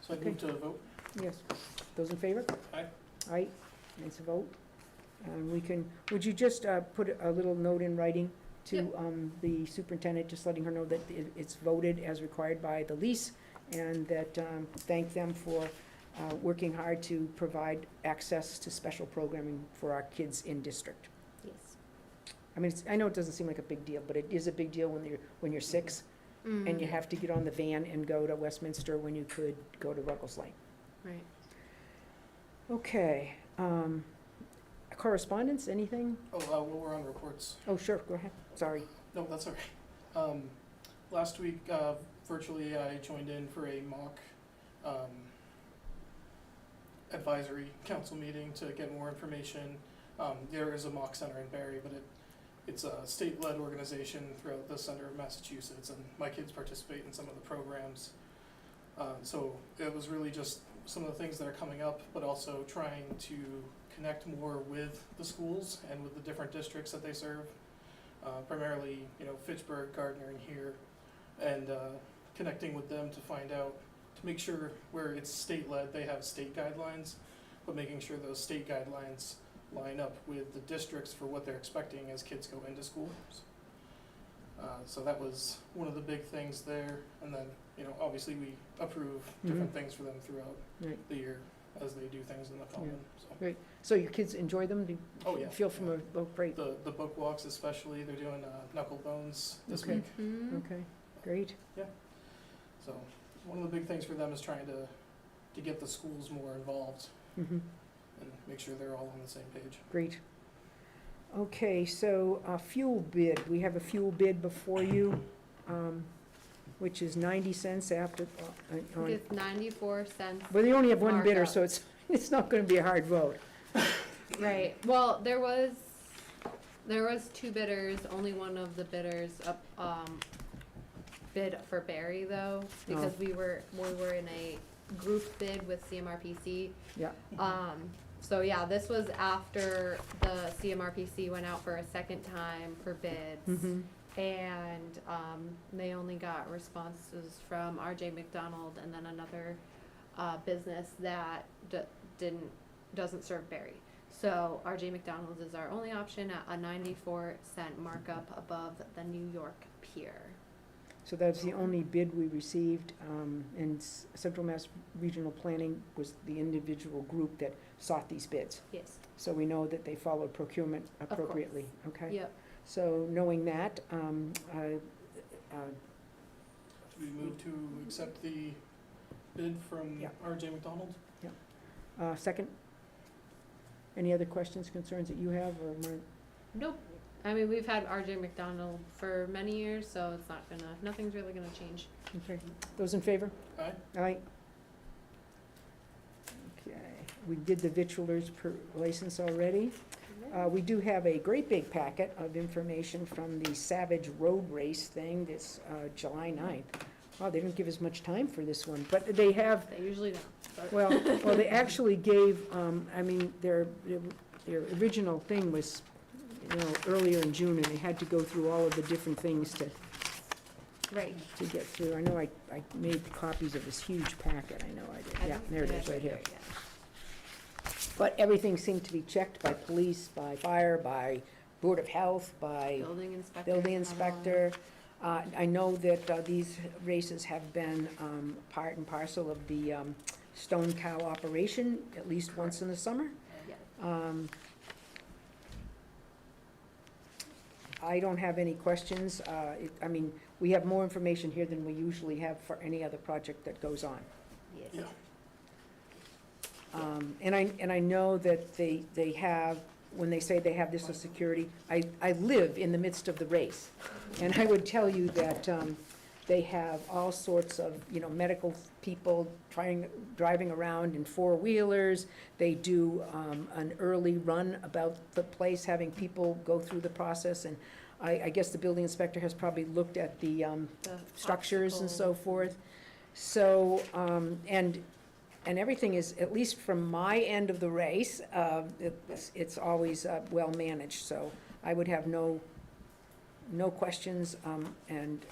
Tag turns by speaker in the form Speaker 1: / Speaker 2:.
Speaker 1: So I move to a vote.
Speaker 2: Yes. Those in favor?
Speaker 1: Aye.
Speaker 2: Aye, it's a vote. And we can, would you just uh, put a little note in writing to
Speaker 3: Yep.
Speaker 2: um, the superintendent, just letting her know that it- it's voted as required by the lease, and that, um, thank them for uh, working hard to provide access to special programming for our kids in district.
Speaker 3: Yes.
Speaker 2: I mean, it's- I know it doesn't seem like a big deal, but it is a big deal when you're, when you're six, and you
Speaker 3: Mm-hmm.
Speaker 2: have to get on the van and go to Westminster when you could go to Ruggles Lane.
Speaker 3: Mm, Right.
Speaker 2: Okay, um, correspondence, anything?
Speaker 1: Oh, uh, well, we're on reports.
Speaker 2: Oh, sure, go ahead, sorry.
Speaker 1: No, that's all right. Um, last week, uh, virtually, I joined in for a mock, um, advisory council meeting to get more information. Um, there is a mock center in Barry, but it, it's a state-led organization throughout the center of Massachusetts, and my kids participate in some of the programs. Uh, so it was really just some of the things that are coming up, but also trying to connect more with the schools and with the different districts that they serve uh, primarily, you know, Fitchburg, Gardner, and here, and uh, connecting with them to find out, to make sure where it's state-led, they have state guidelines, but making sure those state guidelines line up with the districts for what they're expecting as kids go into schools. Uh, So that was one of the big things there, and then, you know, obviously, we approve different things for them throughout
Speaker 2: Right.
Speaker 1: the year as they do things in the common, so.
Speaker 2: So your kids enjoy them? Do you
Speaker 1: Oh, yeah.
Speaker 2: Feel from a, oh, great,
Speaker 1: The, the book walks especially, they're doing uh, knuckle bones this
Speaker 2: Okay.
Speaker 1: week.
Speaker 3: Mm-hmm.
Speaker 2: okay, great,
Speaker 1: So one of the big things for them is trying to, to get the schools more involved
Speaker 2: hmm
Speaker 1: and make sure they're all on the same page.
Speaker 2: great. Okay, so, uh, fuel bid, we have a fuel bid before you, um, which is ninety cents after, uh, on,
Speaker 3: It's ninety-four cents.
Speaker 2: but they only have one bidder,
Speaker 3: Markup.
Speaker 2: so it's, it's not gonna be a hard vote.
Speaker 3: Right, well, there was, there was two bidders, only one of the bidders up, um, bid for Barry though, because
Speaker 2: Oh.
Speaker 3: we were, we were in a group bid with CMRPC.
Speaker 2: Yeah.
Speaker 3: Um, so yeah, this was after the CMRPC went out for a second time for bids.
Speaker 2: Mhm.
Speaker 3: And um, they only got responses from RJ McDonald and then another uh, business that d- didn't doesn't serve Barry. So RJ McDonald's is our only option at a 94 cent markup above the New York Pier.
Speaker 2: So that's the only bid we received, um, and S- Central Mass Regional Planning was the individual group that sought these bids.
Speaker 3: Yes.
Speaker 2: So we know that they followed procurement appropriately, okay?
Speaker 3: Yep.
Speaker 2: So knowing that, um, uh, uh,
Speaker 1: Do we move to accept the bid from
Speaker 2: Yeah.
Speaker 1: RJ McDonald?
Speaker 2: uh, second, any other questions, concerns that you have, or, Mar-
Speaker 3: Nope. I mean, we've had RJ McDonald for many years, so it's not gonna. Nothing's really gonna change.
Speaker 2: okay, those in favor?
Speaker 1: Aye.
Speaker 2: Aye. Okay, we did the vitriolers per license already. Uh, we do have a great big packet of information from the Savage Road Race thing this, uh, July 9th. Wow, they didn't give us much time for this one, but they have,
Speaker 3: They usually don't. but-
Speaker 2: well, well, they actually gave, um, I mean, their, their original thing was, you know, earlier in June, and they had to go through all of the different things to,
Speaker 3: Right.
Speaker 2: to get through. I know I, I made copies of this huge packet, I know I
Speaker 3: I
Speaker 2: did, yeah,
Speaker 3: don't
Speaker 2: there it
Speaker 3: think
Speaker 2: is,
Speaker 3: I
Speaker 2: right here.
Speaker 3: did it yet.
Speaker 2: But everything seemed to be checked by police, by fire, by Board of Health, by
Speaker 3: Building inspector.
Speaker 2: building
Speaker 3: had one.
Speaker 2: inspector. Uh, I know that uh, these races have been um, part and parcel of the um, Stone Cow operation, at least once in the summer.
Speaker 3: Yeah.
Speaker 2: Um, I don't have any questions. Uh, it- I mean, we have more information here than we usually have for any other project that goes on.
Speaker 3: Yes.
Speaker 1: Yeah.
Speaker 2: Um, And I, and I know that they, they have, when they say they have this as security, I, I live in the midst of the race. And I would tell you that um, they have all sorts of, you know, medical people trying, driving around in four-wheelers. They do um, an early run about the place, having people go through the process. And I, I guess the building inspector has probably looked at the, um,
Speaker 3: The
Speaker 2: structures and so
Speaker 3: obstacle.
Speaker 2: forth. So, um, and, and everything is, at least from my end of the race, uh, it's, it's always uh, well managed, so I would have no, no questions, um, and